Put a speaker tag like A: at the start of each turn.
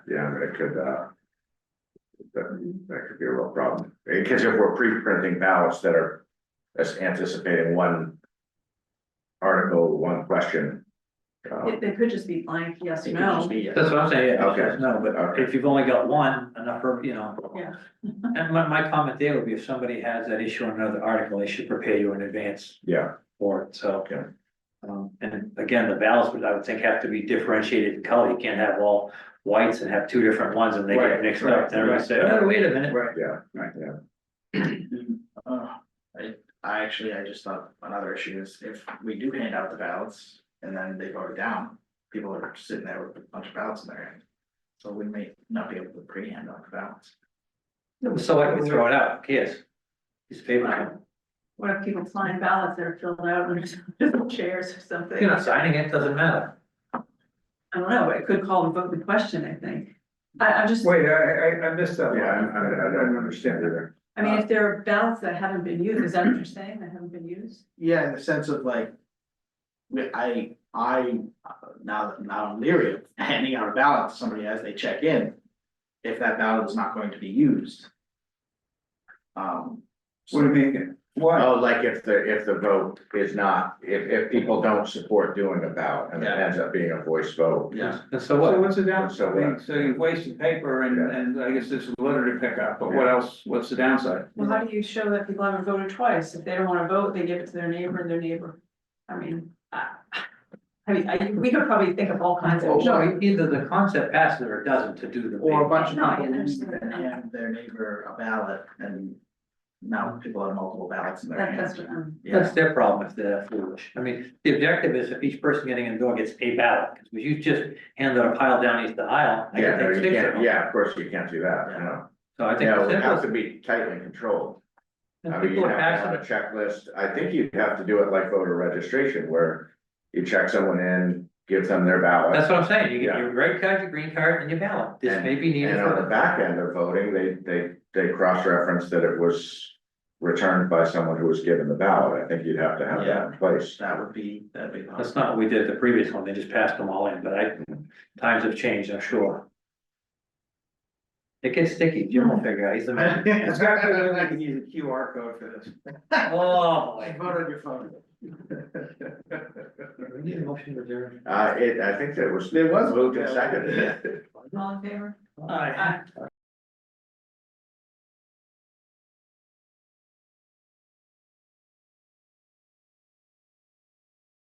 A: yeah, that could, uh. That, that could be a real problem, because if we're pre-printing ballots that are, that's anticipating one. Article, one question. uh,
B: It, it could just be blank, yes or no.
C: That's what I'm saying, yeah, it's
A: Okay.
C: just no, but
A: Okay.
C: if you've only got one, enough for, you know.
B: Yeah.
C: And my, my comment there would be if somebody has that issue on another article, they should prepare you in advance
A: Yeah,
C: for it, so.
A: Yeah.
C: Um, and again, the ballots would, I would think, have to be differentiated in color, you can't have all whites and have two different ones and they
A: Right,
C: get mixed
A: right,
C: up, then everybody say,
D: right.
C: oh, wait a minute.
D: Right.
A: yeah,
D: Right.
A: yeah,
D: Uh, I, I actually, I just thought another issue is if we do hand out the ballots and then they vote down, people are sitting there with a bunch of ballots in their hand. So we may not be able to pre-hand out the ballots.
C: So I can throw it out, yes. These paper,
B: What if people sign ballots that are filled out and there's chairs or something?
C: you're not signing it, doesn't matter.
B: I don't know, it could call the vote in question, I think. I, I'm just,
E: Wait, I, I, I missed that.
A: yeah, I,
E: one.
A: I, I don't understand either.
B: I mean, if there are ballots that haven't been used, is that what you're saying, that haven't been used?
D: Yeah, in the sense of like. We, I, I, uh, now, now I'm leery of handing out a ballot to somebody as they check in. If that ballot is not going to be used. Um. so-
E: What do you mean, why?
A: Oh, like if the, if the vote is not, if, if people don't support doing a ballot and it
D: Yeah.
A: ends up being a voice vote.
D: Yeah,
C: And so
E: So
C: what?
E: what's the downside?
A: So
E: I
A: what?
E: mean, So you wasted paper and,
A: Yeah.
E: and I guess this is litter to pick up, but what else, what's the downside?
B: Well, how do you show that people haven't voted twice? If they don't wanna vote, they give it to their neighbor and their neighbor. I mean, I, I mean, I, we could probably think of all kinds of.
C: No, either the concept passes or it doesn't to do the.
D: Or a bunch of
B: No, I
D: people
B: understand that.
D: hand their neighbor a ballot and now people have multiple ballots in their
B: That,
D: hands.
B: that's um, what I'm.
C: That's their problem if they're foolish. I mean, the objective is if each person getting in the door gets a ballot, because if you just hand out a pile down each the aisle, I
A: Yeah,
C: can
A: no,
C: take
A: you
C: six of
A: can't,
C: them.
A: yeah, of course you can't do that, you know.
C: So I think
A: No,
C: the
A: it has
C: simplest,
A: to be tightly controlled.
C: if
A: I mean, you
C: people
A: have
C: are
A: to have a
C: passionate,
A: checklist, I think you'd have to do it like voter registration, where you check someone in, give them their ballot.
C: that's what I'm saying, you get
A: Yeah.
C: your red card, your green card, and your ballot, this may be needed
A: And on
C: for
A: the back end of voting, they, they, they cross-reference that it was returned by someone who was given the ballot, I think you'd have to have that in place.
D: That would be, that'd be.
C: That's not what we did the previous one, they just passed them all in, but I, times have changed, I'm sure. It gets sticky, Jim will figure out, he's the man.
E: It's got to, be like I can use a QR code for this.
C: Oh,
D: I
C: boy.
D: vote on your phone.
C: we need a motion to adjourn.
A: Uh, it, I think that was, it was moved and seconded.
B: All in favor?
C: Aye.
B: Aye.